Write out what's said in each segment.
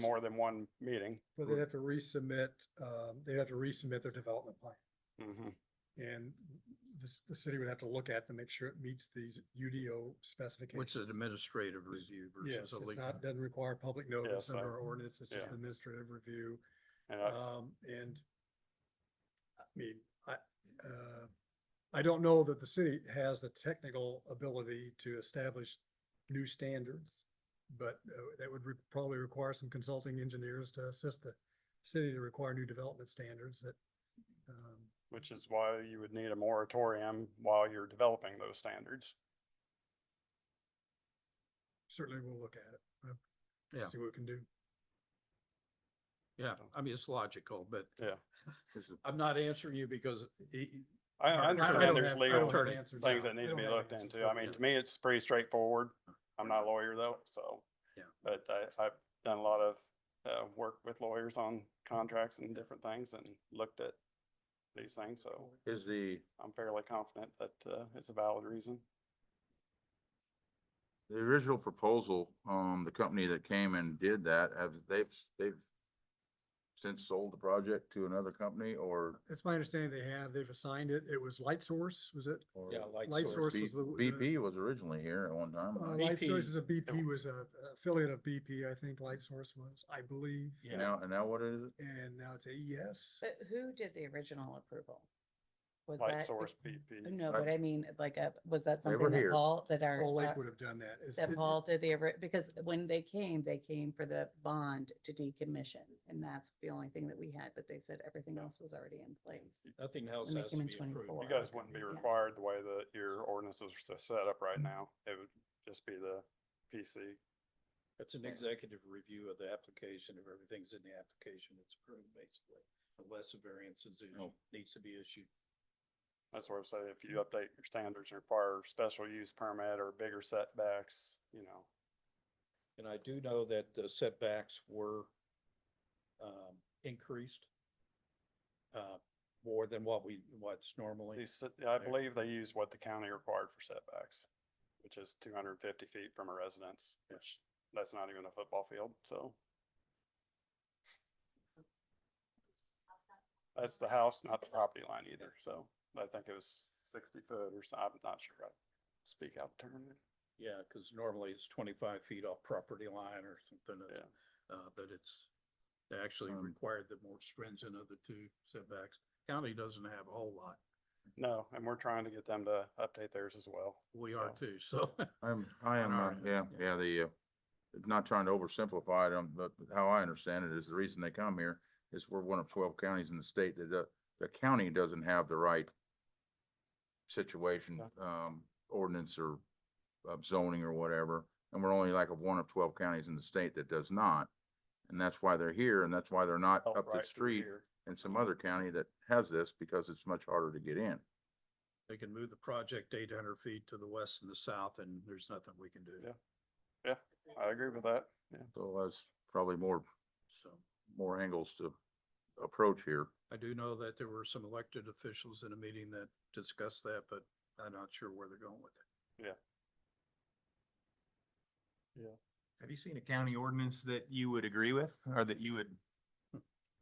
more than one meeting. Well, they'd have to resubmit, um, they'd have to resubmit their development plan. Mhm. And the, the city would have to look at to make sure it meets these UDO specifications. Which is administrative review Yes, versus a it's legal. not, doesn't require public notice Yes, I- under our ordinance, it's just yeah. administrative review, And I- um, and I mean, I, uh, I don't know that the city has the technical ability to establish new standards, but uh, that would re- probably require some consulting engineers to assist the city to require new development standards that, um, which is why you would need a moratorium while you're developing those standards. certainly we'll look at it. Uh, Yeah. See what we can do. Yeah, I mean, it's logical, but Yeah. I'm not answering you because he- I Right. I I don't understand there's have- I don't legal have answers things that now. I need to don't be have looked answers into. for I you. mean, to me, it's pretty straightforward. I'm not a lawyer though, so. Yeah. But I, I've done a lot of, uh, work with lawyers on contracts and different things and looked at these things, so Is the, I'm fairly confident that, uh, it's a valid reason. the original proposal, um, the company that came and did that, have, they've, they've since sold the project to another company or? That's my understanding they have, they've assigned it, it was Light Source, was it? or- yeah, light Light source source. B- was the- BP was originally here at one time. Uh, and I- Light BP Source is a Oh. BP, was a a affiliate of BP, I think Light Source was, I believe, And Yeah, now, and now what is it? and now it's E AES. But who did the original approval? Was Light that- source PP. No, Right. but I mean, like, uh, was that They were something that here. Paul, that our, Paul Lake our- would have done that. It's- that it- Uh, Paul did the, ori- because when they came, they came for the bond to decommission. And that's the only thing that we had, but they said everything else was already in place. nothing else When they has came to in be approved. 24. You guys wouldn't be Yeah. required the way that your ordinances are s- set up right now. It would just be the PC. That's an executive review of the application, if everything's in the application, it's approved basically, unless a variance is, issued- Oh. needs to be issued. That's where I'm saying if you update your standards, and require special use permit or bigger setbacks, you know. And I do know that the setbacks were um, increased uh, more than what we, what's normally. These, s- I There. believe they use what the county required for setbacks, which is two hundred and fifty feet from a residence, which that's not even a football field, so. That's the house, not the property line either, so I think it was sixty foot or so, I'm not sure. I Speak out of turn. Yeah, because normally it's twenty-five feet off property line or something, uh, Yeah. uh, but it's they actually Um, required the more stringent of the two setbacks. County doesn't have a whole lot. No, and we're trying to get them to update theirs as well. We are so. too, so. I'm, I On am, our uh, end, yeah, yeah. yeah, the, uh, not trying to oversimplify it, um, but how I understand it is the reason they come here is we're one of twelve counties in the state that the, the county doesn't have the right situation, um, ordinance or uh, zoning or whatever, and we're only like a one of twelve counties in the state that does not. And that's why they're here, and that's why they're not Oh, Health up the right to street here. in some other county that has this, because it's much harder to get in. They can move the project eight hundred feet to the west and the south and there's nothing we can do. Yeah. I agree with that, yeah. So that's probably more, So more angles to approach here. I do know that there were some elected officials in a meeting that discussed that, but I'm not sure where they're going with it. Have you seen a county ordinance that you would agree with or that you would?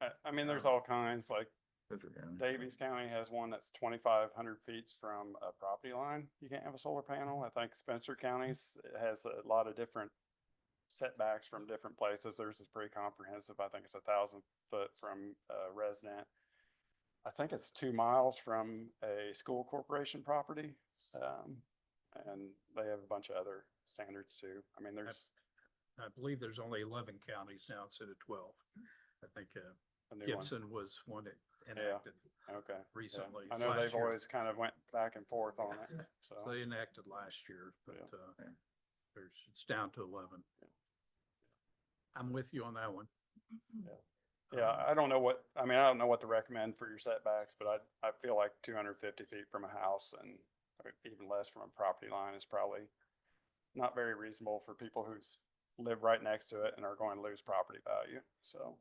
I, I mean, Um, there's all kinds, like Pittsburgh County. Davies County has one that's twenty-five hundred feet from a property line. You can't have a solar panel. I think Spencer County's has a lot of different setbacks from different places. Theirs is pretty comprehensive. I think it's a thousand foot from a resident. I think it's two miles from a school corporation property. Um, and they have a bunch of other standards too. I mean, there's I believe there's only eleven counties now instead of twelve. I think uh, a new one. Gibson was one that Yeah. enacted, Okay. yeah. recently, I know last they've year. always kind of went back and forth on it, so they enacted last year, but Yeah. uh, Yeah. there's, it's down to eleven. I'm with you on that one. Yeah, Um, I don't know what, I mean, I don't know what to recommend for your setbacks, but I, I feel like two hundred fifty feet from a house and or even less from a property line is probably not very reasonable for people who's live right next to it and are going to lose property value, so.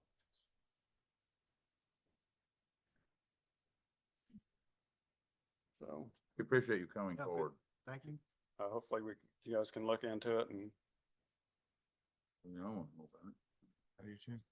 So, We appreciate you coming Yeah, good. forward. Thank you. uh, hopefully we, you guys can look into it and You know, and we'll- I do too.